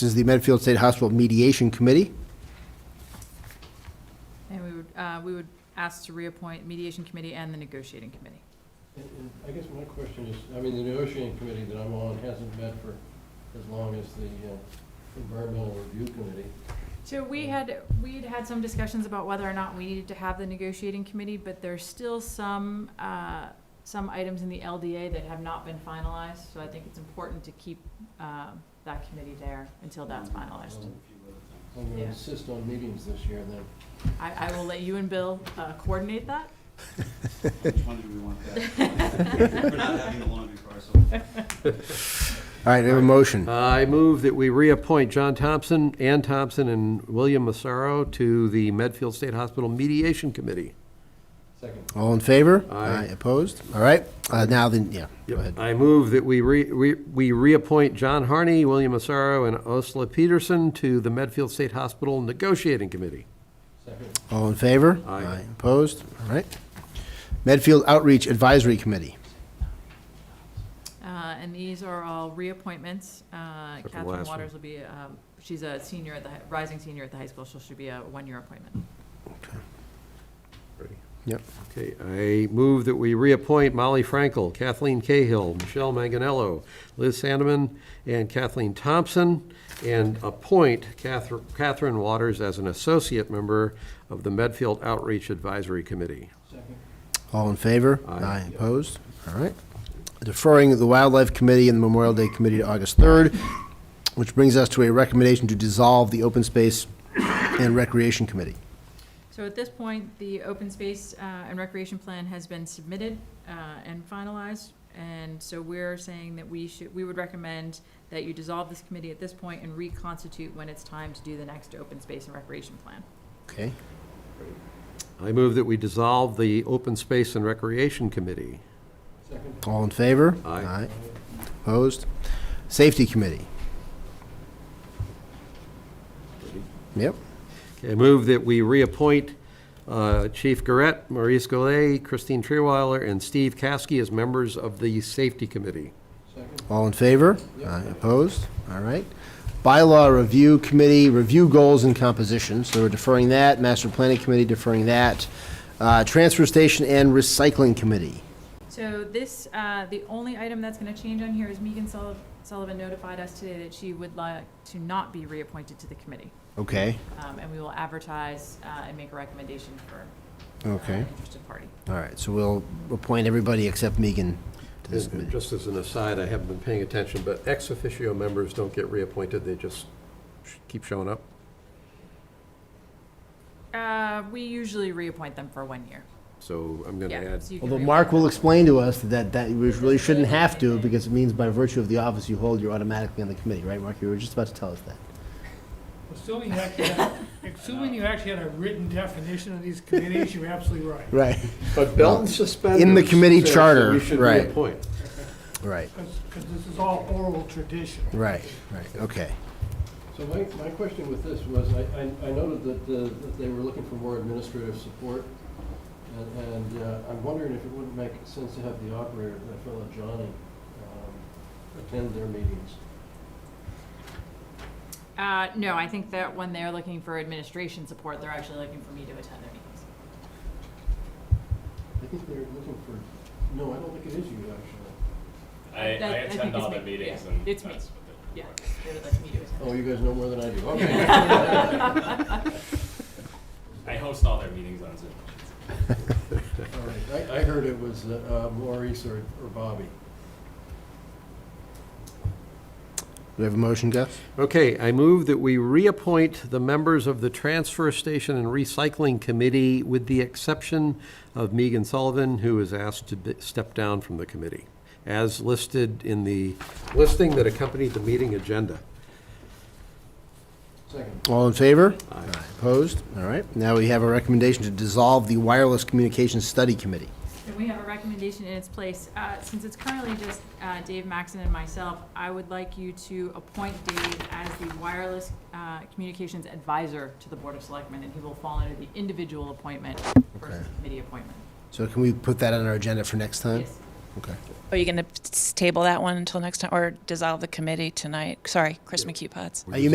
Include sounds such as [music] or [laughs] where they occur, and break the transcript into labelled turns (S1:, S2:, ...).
S1: This is the Medfield State Hospital Mediation Committee.
S2: And we would, uh, we would ask to reappoint mediation committee and the negotiating committee.
S3: And- and I guess my question is, I mean, the negotiating committee that I'm on hasn't met for as long as the uh, environmental review committee.
S2: So we had, we'd had some discussions about whether or not we needed to have the negotiating committee, but there's still some, uh, some items in the LDA that have not been finalized, so I think it's important to keep, um, that committee there until that's finalized. [laughs]
S3: Um, I'm going to
S2: Yeah.
S3: insist on meetings this year then.
S2: I, I will let you and Bill, uh, coordinate that.
S4: Which one do we want that? [laughs] We're not having a laundry parcel.
S1: All right, I have a motion.
S5: Uh, I move that we reappoint John Thompson, Ann Thompson, and William Massaro to the Medfield State Hospital Mediation Committee.
S3: Second,
S1: All in favor?
S5: Aye.
S1: Opposed? All right, uh, now then, yeah, go ahead.
S5: I move that we re, we we reappoint John Harney, William Massaro, and Osla Peterson to the Medfield State Hospital Negotiating Committee.
S3: second,
S1: All in favor?
S5: Aye.
S1: Opposed? All right. Medfield Outreach Advisory Committee.
S2: Uh, and these are all reappointments. Uh,
S5: for the
S2: Catherine
S5: last one.
S2: Waters will be, um, she's a senior at the, hi- rising senior at the high school, so she'll be a one-year appointment.
S1: Yep.
S5: Okay, I move that we reappoint Molly Frankel, Kathleen Cahill, Michelle Manganello, Liz Sandeman, and Kathleen Thompson, and appoint Cather- Catherine Waters as an associate member of the Medfield Outreach Advisory Committee.
S3: second.
S1: All in favor?
S5: Aye.
S1: Opposed? All right. Deferring the Wildlife Committee and the Memorial Day Committee to August 3rd, which brings us to a recommendation to dissolve the Open Space and Recreation Committee.
S2: So at this point, the open space uh, and recreation plan has been submitted uh, and finalized. And so we're saying that we should, we would recommend that you dissolve this committee at this point and reconstitute when it's time to do the next open space and recreation plan.
S1: Okay,
S5: I move that we dissolve the Open Space and Recreation Committee.
S3: Second,
S1: all in favor?
S5: Aye.
S1: Opposed? Safety Committee. Yep,
S5: I move that we reappoint uh, Chief Garrett, Maurice Golay, Christine Trewiler, and Steve Caskey as members of the Safety Committee.
S3: second,
S1: all in favor?
S3: Yep.
S1: Aye. Opposed? All right. Bylaw Review Committee, review goals and composition, so we're deferring that. Master Planning Committee deferring that. Uh, Transfer Station and Recycling Committee.
S2: So this, uh, the only item that's gonna change on here is Megan Sulliv- Sullivan notified us today that she would like to not be reappointed to the committee.
S1: Okay,
S2: Um, And we will advertise uh, and make a recommendation for uh,
S1: okay.
S2: an interested party.
S1: All right, so we'll appoint everybody except Megan to this
S5: And
S1: committee.
S5: Just as an aside, I haven't been paying attention, but ex officio members don't get reappointed, they just sh- keep showing up.
S2: Uh, We usually reappoint them for one year.
S5: So I'm going to
S2: Yeah,
S5: add,
S2: so you can
S1: Although
S2: reappoint
S1: Mark will
S2: them.
S1: explain to us that, that we really shouldn't have to, because it means by virtue of the office you hold, you're automatically on the committee, right, Mark? You were just about to tell us that.
S6: Assuming you actually, had- assuming you actually had a written definition of these committees, you're absolutely right.
S1: Right.
S5: but belt and suspenders.
S1: in the committee
S5: says that
S1: charter,
S5: We should
S1: right.
S5: reappoint.
S1: Right,
S6: Because this is all oral tradition.
S1: right, right, okay.
S3: So my, my question with this was, I, I- I noted that, uh, that they were looking for more administrative support, and, and uh, I'm wondering if it wouldn't make sense to have the operator, that fellow Johnny, um, attend their meetings.
S2: Uh, no, I think that when they're looking for administration support, they're actually looking for me to attend their meetings.
S3: I think they're looking for, no, I don't think it is you, actually.
S7: I, I
S2: That- I think
S7: attend
S2: it's
S7: all the
S2: me.
S7: meetings
S2: Yeah,
S7: and
S2: it's
S7: that's
S2: me.
S7: what they.
S2: Yeah, they would like me to
S3: Oh,
S2: attend.
S3: you guys know more than I do, okay.
S7: I host all their meetings on Zoom.
S3: All right. I, I heard it was uh, uh, Maurice or, or Bobby.
S1: Do we have a motion, Gus?
S5: Okay, I move that we reappoint the members of the Transfer Station and Recycling Committee with the exception of Megan Sullivan, who is asked to bi- step down from the committee, as listed in the listing that accompanied the meeting agenda.
S3: Second,
S1: All in favor? Aye. Opposed? All right, now we have a recommendation to dissolve the Wireless Communications Study Committee.
S2: And we have a recommendation in its place. Uh, since it's currently just, uh, Dave Maxon and myself, I would like you to appoint Dave as the wireless, uh, communications advisor to the Board of Selectmen, and he will fall under the individual appointment versus
S1: Okay.
S2: committee appointment.
S1: So can we put that on our agenda for next time?
S2: Yes.
S1: Okay.
S8: Are you going to table that one until next time, or dissolve the committee tonight? Sorry, Chris McHugh Potts.
S1: Are you